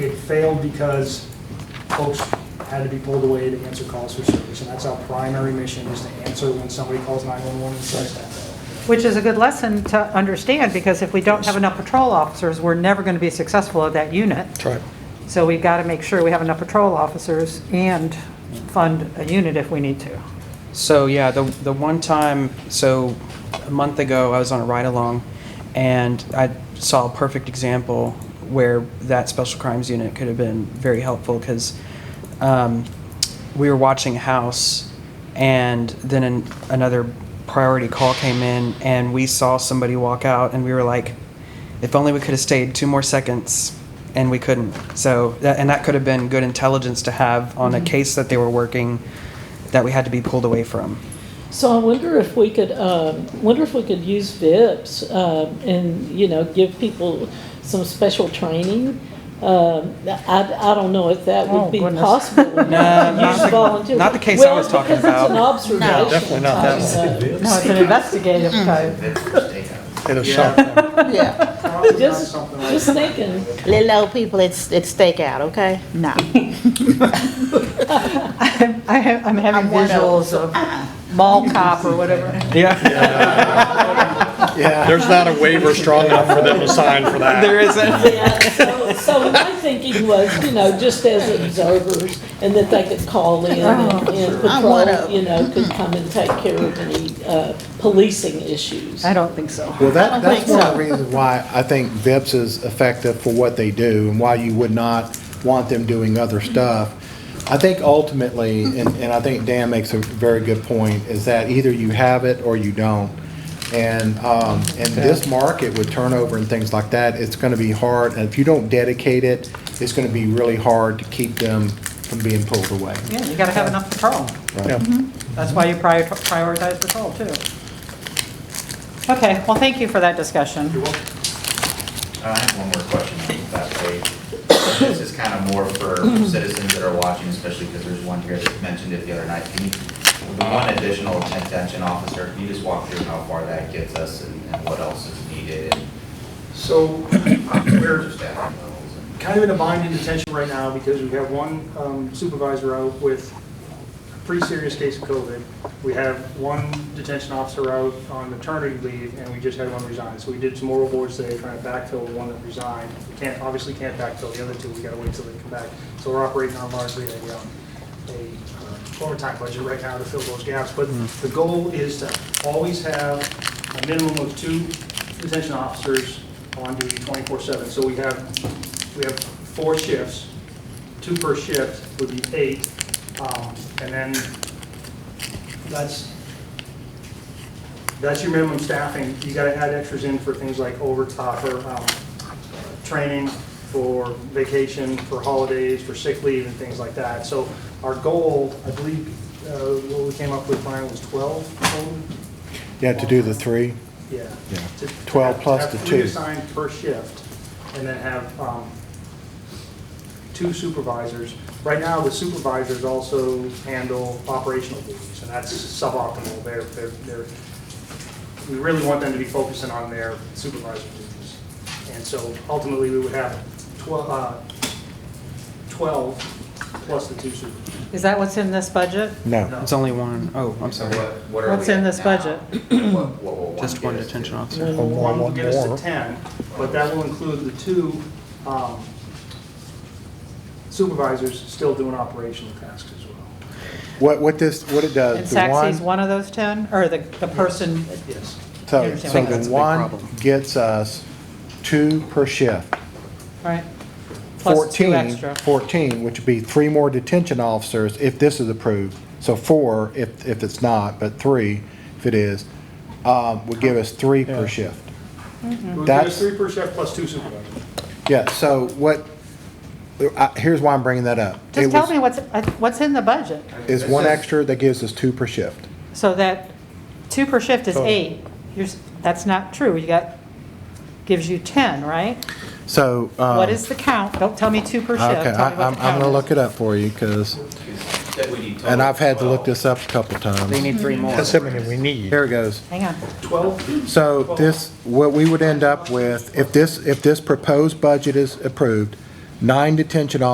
failed because folks had to be pulled away to answer calls for service, and that's our primary mission, is to answer when somebody calls 911 and says that. Which is a good lesson to understand, because if we don't have enough patrol officers, we're never going to be successful at that unit. That's right. So we've got to make sure we have enough patrol officers and fund a unit if we need to. So yeah, the the one time, so a month ago, I was on a ride along, and I saw a perfect example where that special crimes unit could have been very helpful because um, we were watching a house, and then an, another priority call came in, and we saw somebody walk out, and we were like, if only we could have stayed two more seconds and we couldn't so that, and that could have been good intelligence to have on a case that they were working that we had to be pulled away from So I wonder if we could, um, wonder if we could use VIPs um, and, you know, give people some special training? Um, I I don't know if that Oh, would be goodness. possible. No, not the- not the case I was talking about. Well, because it's an observation. uh, Definitely not No, it's an investigative Mm-hmm. type. It'll shock them. Yeah. Probably not Just, something like- just thinking. Little old people, it's, it's stakeout, okay? No. I'm I ha- I'm having I'm one of- visuals of mall cop or whatever. yeah Yeah, There's not a waiver strong enough for them to sign for that. there isn't Yeah, so, so my thinking was, you know, just as observers, and that they could call in Oh. and and I'm one of patrol, them. you know, could come and take care of any uh, policing issues. I don't think so. well, I don't that, that's think one of so. the reasons why I think VIPS is effective for what they do and why you would not want them doing other stuff. I think ultimately, and, and I think Dan makes a very good point, is that either you have it or you don't. And, um, in this market with turnover and things like that, it's gonna be hard, and if you don't dedicate it, it's gonna be really hard to keep them from being pulled away. Yeah, you got to have enough patrol. Right. Mm-hmm. That's why you prior- prioritize patrol, too. Okay, well, thank you for that discussion. I have one more question on that page. This is kind of more for citizens that are watching, especially because there's one here that mentioned it the other night. Can you, with the one additional detention officer, can you just walk through how far that gets us and and what else is needed? So, Where is that? kind of in a bind in detention right now because we have one um, supervisor out with a pretty serious case of COVID. We have one detention officer out on maternity leave, and we just had one resign. So we did some oral boards today trying to backfill the one that resigned. We can't, obviously can't backfill the other two, we gotta wait till they come back. So we're operating on largely a, um, a uh, overtime budget right now to fill those gaps. But the goal is to always have a minimum of two detention officers on duty twenty-four seven. So we have, we have four shifts, two per shift would be eight. Um, And then that's, that's your minimum staffing. You gotta add extras in for things like overtime, for um, training, for vacation, for holidays, for sick leave and things like that. So our goal, I believe, uh, what we came up with, Brian, was 12 total? Yeah, to do the three. Yeah. Yeah. To- 12 have- plus the Have three two. assigned per shift, and then have um, two supervisors. Right now, the supervisors also handle operational duties, and that's suboptimal. They're, they're, they're, we really want them to be focusing on their supervisor duties. And so ultimately, we would have 12, uh, 12 plus the two supervisors. Is that what's in this budget? No. No. it's only one. Oh, i'm So sorry what, what are we What's in at this now? budget? What- what will just get one us to? detention officer One will One get us more. to 10, but that will include the two um, supervisors still doing operational tasks as well. What, what this, what it does. And Uh, the one- Saxy's one of those 10, or the, the person? Yes. You So, understand so what I'm the saying? one That's a big problem. gets us two per shift. Right. Plus two 14, extra. 14, which would be three more detention officers if this is approved. So four if, if it's not, but three if it is, um, would give us three per shift. It would give us That's- three per shift plus two supervisors. Yeah, so what, I- here's why I'm bringing that up. It Just tell was- me what's, I- what's in the budget? Is one extra that gives us two per shift. So that two per shift is Total. eight. You're, s- that's not true. You got, gives you 10, right? So. What um, is the count? Don't tell me two per shift. Okay, Tell I- me I'm, what I'm the count gonna is. look it up for you, because, Because that we need total and I've had to look 12. this up a couple they times. need three more That's That's everything we need. Here it goes. Hang on. 12, So this, what we would end up with, if this, if this proposed budget is approved, nine detention officers